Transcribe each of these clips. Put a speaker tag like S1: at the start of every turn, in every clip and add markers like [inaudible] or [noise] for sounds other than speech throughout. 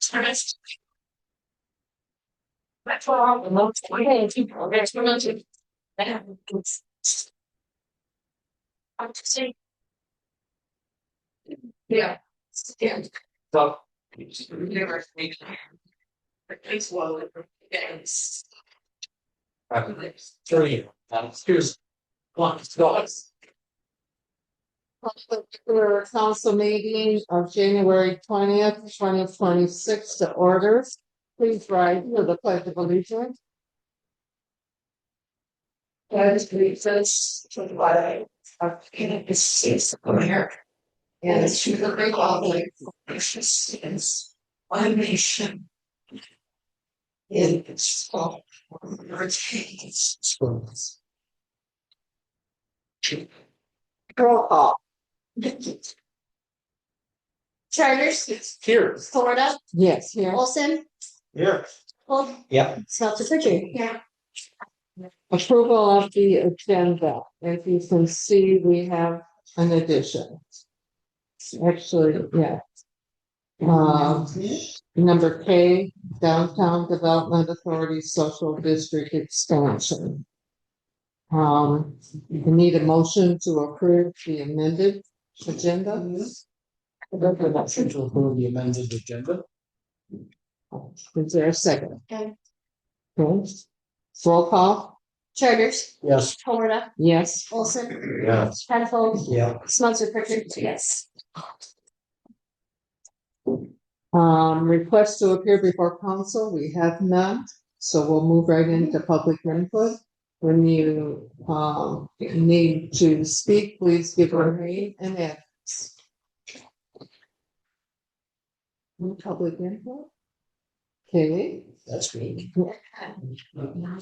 S1: Service. That's all the most way people, there's no to. They have. I'm just saying. Yeah. Yeah.
S2: So.
S1: Universe. It's well. Yes.
S2: I'm sure you, um, here's. One, dollars.
S3: Particular council meeting of January twentieth, twenty twenty-six to order. Please rise to the pledge of allegiance.
S1: That leads us to the bottom of the United States of America. And to the Republic, which is one nation. In its fall, retains its rules.
S3: Roll call.
S4: Charters,
S2: Here.
S4: Florida,
S3: Yes, here.
S4: Olson,
S2: Here.
S4: Holt,
S2: Yeah.
S4: Smelter Richard.
S1: Yeah.
S3: Approval of the agenda. As you can see, we have an addition. Actually, yeah. Um, number K, Downtown Development Authority Social District Expansion. Um, you need a motion to approve the amended agenda.
S2: motion to approve the amended agenda.
S3: Is there a second?
S4: Okay.
S3: Okay. Roll call,
S4: Charters,
S2: Yes.
S4: Florida,
S3: yes.
S4: Olson,
S2: Yes.
S4: Penfold,
S2: Yeah.
S4: Smelter Richard.
S1: Yes.
S3: Um, request to appear before council, we have none, so we'll move right into public input. When you, um, need to speak, please give your name and address. Any Public input? Okay,
S2: That's great.
S3: my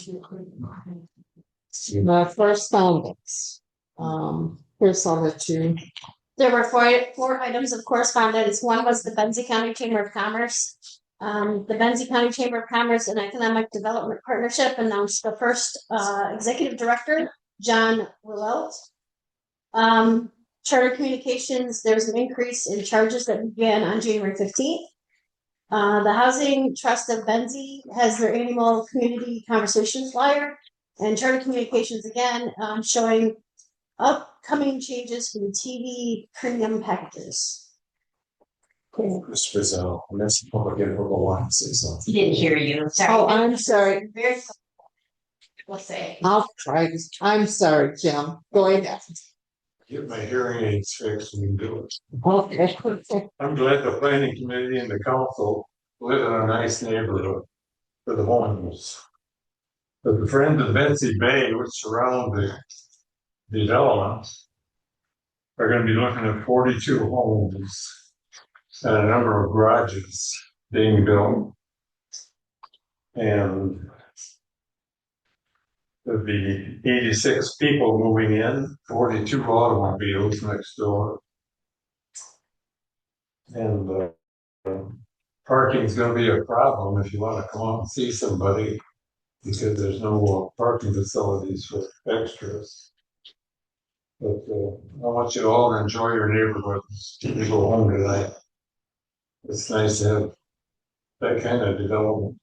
S3: correspondence. Um, here's all that you,
S4: There were four, four items of correspondence. One was the Benzie County Chamber of Commerce. Um, the Benzie County Chamber of Commerce and Economic Development Partnership announced the first, uh, executive director, John Willelt. Um, Charter Communications, there's an increase in charges that began on January fifteenth. Uh, the Housing Trust of Benzie has their annual community conversation flyer. And Charter Communications again, um, showing upcoming changes for the TV premium packages.
S2: Chris Rizzo, that's public input, want to say something.
S1: Didn't hear you.
S3: oh, I'm sorry,
S4: Very. We'll say.
S3: I'll try this, I'm sorry, Jim, go ahead.
S5: Get my hearing aids fixed and do it.
S3: Okay.
S5: I'm glad the planning committee and the council live in a nice neighborhood for the homeless. But the friends of Betsy Bay, which surround the development, are gonna be looking at forty-two homes and a number of garages being built. And there'd be eighty-six people moving in, forty-two automobiles next door. And uh, um, parking's gonna be a problem if you wanna come out and see somebody. Because there's no uh, parking facilities for extras. But uh, I want you all to enjoy your neighborhoods, you go home tonight. It's nice to have that kind of development.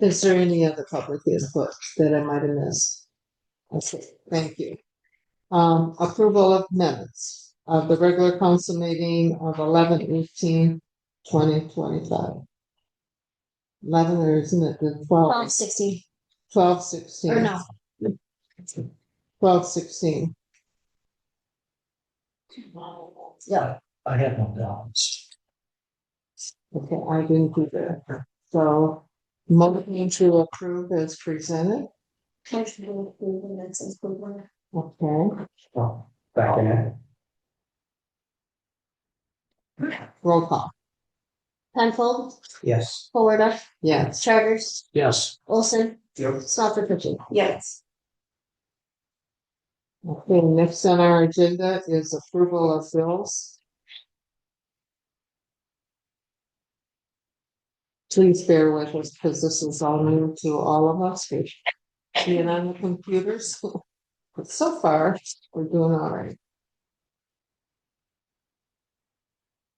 S3: Is there any other public input that I might have missed? Okay, thank you. Um, approval of minutes of the regular council meeting of 11 18 eleven eighteen twenty twenty-five. Eleven, or isn't it the
S4: Twelve
S3: twelve,
S4: sixty,
S3: twelve
S4: or
S3: sixteen,
S4: no,
S3: twelve sixteen?
S2: Yeah, I have no doubts.
S3: Okay, I didn't do that. So motion to approve as presented, okay,
S2: Well, back in it.
S3: roll call,
S4: Penfold,
S2: Yes.
S4: Florida,
S3: yes.
S4: Charters,
S2: Yes.
S4: Olson,
S2: Yep.
S4: Smelter Richard.
S1: Yes.
S3: Okay, next on our agenda is approval of bills. Please bear with us because this is all new to all of us. [laughs] We're Being on the computers. But so far, we're doing all right.